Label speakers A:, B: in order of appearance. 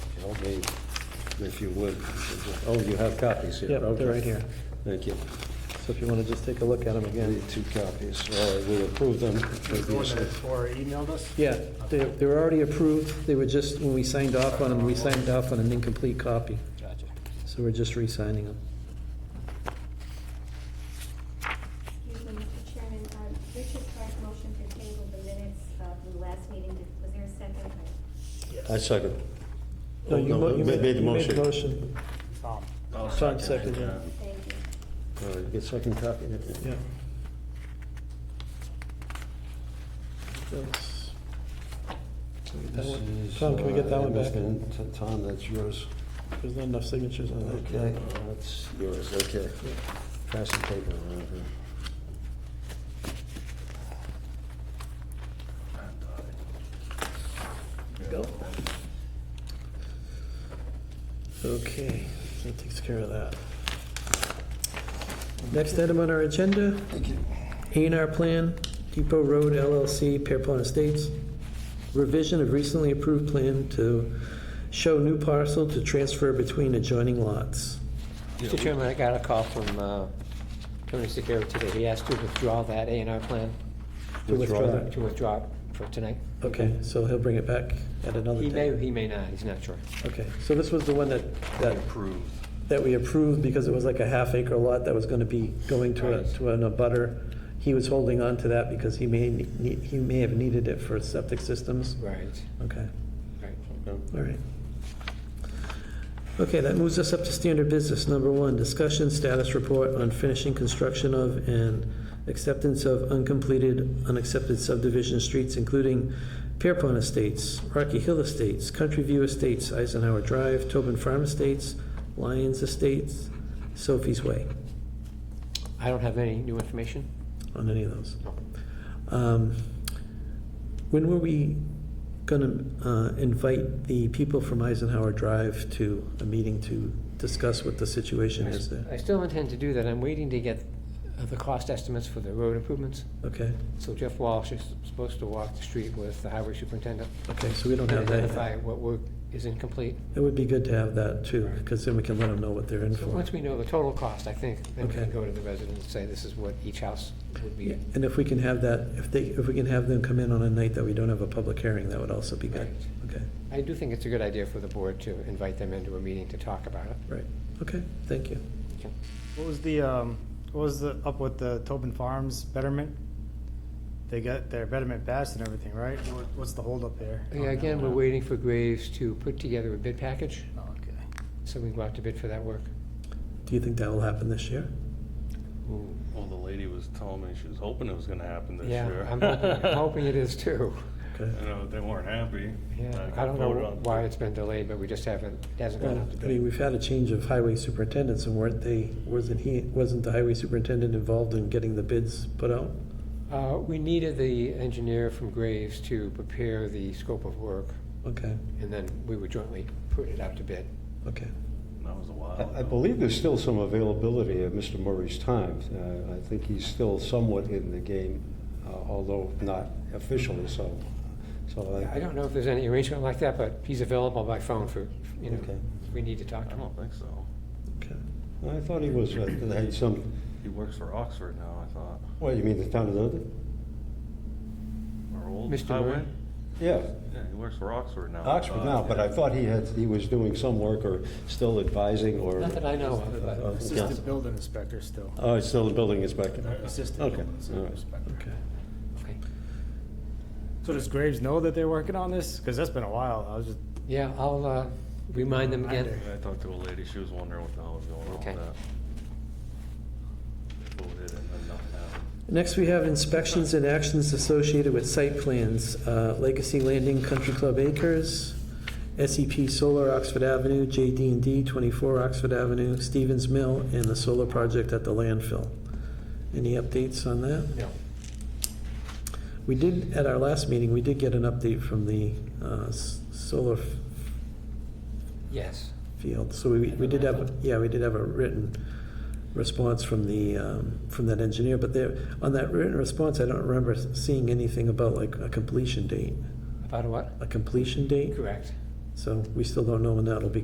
A: me, if you would. Oh, you have copies here?
B: Yep, they're right here.
A: Thank you.
B: So if you want to just take a look at them
A: I
B: again.
A: need two copies. All right, we approve them.
C: The one that Laura emailed us?
B: Yeah, they, they were already approved, they were just, when we signed off on them, we signed off on an incomplete copy,
C: Gotcha.
B: so we're just re-signing them.
D: Excuse me, Mr. Chairman, uh, Richard Clark motioned to table the minutes of the last meeting. Did- Was there a second?
A: I second.
B: No, you mo- you
A: Oh, made the
B: you
A: motion.
B: motion.
C: Tom.
B: Tom seconded it.
D: Thank you.
A: All right, you get second copy.
B: yeah. That's- That one-
A: This is,
B: Tom, can we get that
A: uh,
B: one back?
A: Mr. Tom, that's yours.
B: There's not enough signatures on that.
A: Okay, that's yours, okay. Pass the paper around here.
B: Go. Okay, that takes care of that. Next item on our agenda, A and R Plan, Depot Road LLC, Pearpon Estates. Revision of recently approved plan to show new parcel to transfer between adjoining lots.
E: Mr. Chairman, I got a call from uh, Tony Secura today. He asked to withdraw that A and R plan,
B: To withdraw that.
E: to withdraw it for tonight.
B: Okay, so he'll bring it back at another
E: He may,
B: time.
E: he may not, he's not sure.
B: Okay, so this was the one that, that. Approved. That we approved because it was like a half acre lot that was gonna be going to a,
E: Right.
B: to an abutter. He was holding on to that because he may, ne- he may have needed it for septic systems.
E: Right,
B: Okay,
E: right.
B: all right. Okay, that moves us up to standard business, number one, discussion status report on finishing construction of and acceptance of uncompleted, unaccepted subdivision streets, including Pierpont Estates, Rocky Hill Estates, Country View Estates, Eisenhower Drive, Tobin Farm Estates, Lyons Estates, Sophie's Way,
E: I don't have any new information.
B: on any of those. Um, When were we gonna uh, invite the people from Eisenhower Drive to a meeting to discuss what the situation is
E: I
B: there?
E: still intend to do that. I'm waiting to get uh, the cost estimates for the road improvements.
B: Okay,
E: So Jeff Walsh is supposed to walk the street with the highway superintendent.
B: okay, so we don't
E: and
B: have that.
E: Identify
B: yet.
E: what work is incomplete.
B: It would be good to have that too, because then we can let them know what they're in
E: So
B: for.
E: once we know the total cost, I think, then we
B: Okay.
E: can go to the residents and say, this is what each house would be.
B: And if we can have that, if they, if we can have them come in on a night that we don't have a public hearing, that would also be good. Okay,
E: I do think it's a good idea for the board to invite them into a meeting to talk about it.
B: right, okay, thank you.
C: What was the, um, what was the, up with the Tobin Farms betterment? They got their betterment passed and everything, right? What- What's the holdup there?
E: Oh, Yeah, again, we're waiting for Graves to put together a bid package,
C: Oh, Okay.
E: so we can go out to bid for that work.
B: Do you think that will happen this year?
F: Well, the lady was telling me she was hoping it was gonna happen this
E: Yeah,
F: year.
E: I'm hoping, I'm hoping it is too.
B: Okay.
F: You know, they weren't happy.
E: Yeah,
F: got
E: I don't know
F: voted on.
E: why it's been delayed, but we just haven't, it hasn't gone
B: Well,
E: out to
B: I mean,
E: bid.
B: we've had a change of highway superintendents, and weren't they, wasn't he, wasn't the highway superintendent involved in getting the bids put out?
E: Uh, we needed the engineer from Graves to prepare the scope of work,
B: Okay,
E: and then we would jointly put it out to bid.
B: okay.
F: That was a while
A: I- I
F: ago.
A: believe there's still some availability of Mr. Murray's time. Uh, I think he's still somewhat in the game, uh, although not officially so. So
E: I don't know if there's any arrangement like that, but he's available by phone for, you know,
A: Okay.
E: if we need to talk
F: I
E: to him.
F: don't think so.
B: Okay.
A: I thought he was, uh, had some,
F: He works for Oxford now, I thought.
A: what, you mean the town of Dunedin?
F: Or old
E: Mr.
F: highway?
E: Murray?
A: Yeah,
F: Yeah, he works for Oxford now. I
A: Oxford
F: thought.
A: now, but I thought he had, he was doing some work or still advising or.
E: Not that I know of, but.
A: Uh, yeah.
C: Assistant building inspector still.
A: Oh, he's still the building inspector.
C: Assistant
A: Okay,
C: building
A: all right.
C: inspector.
B: Okay.
E: Okay.
C: So does Graves know that they're working on this? Because that's been a while. I was just,
E: Yeah, I'll uh, remind them again.
F: I talked to a lady, she was wondering what the hell was going on with
E: Okay.
F: that. They Voted and then nothing happened.
B: Next, we have inspections and actions associated with site plans, Uh, Legacy Landing Country Club Acres, SEP Solar Oxford Avenue, jd and D 24 Oxford Avenue, Stevens Mill, and the solar project at the landfill. Any updates on that?
E: No.
B: We did, at our last meeting, we did get an update from the uh, s- solar f-
E: Yes.
B: field, so we, we did have, yeah, we did have a written response from the, um, from that engineer, but there, on that written response, I don't remember seeing anything about like a completion date,
E: About what?
B: a completion date?
E: Correct.
B: So we still don't know when that'll be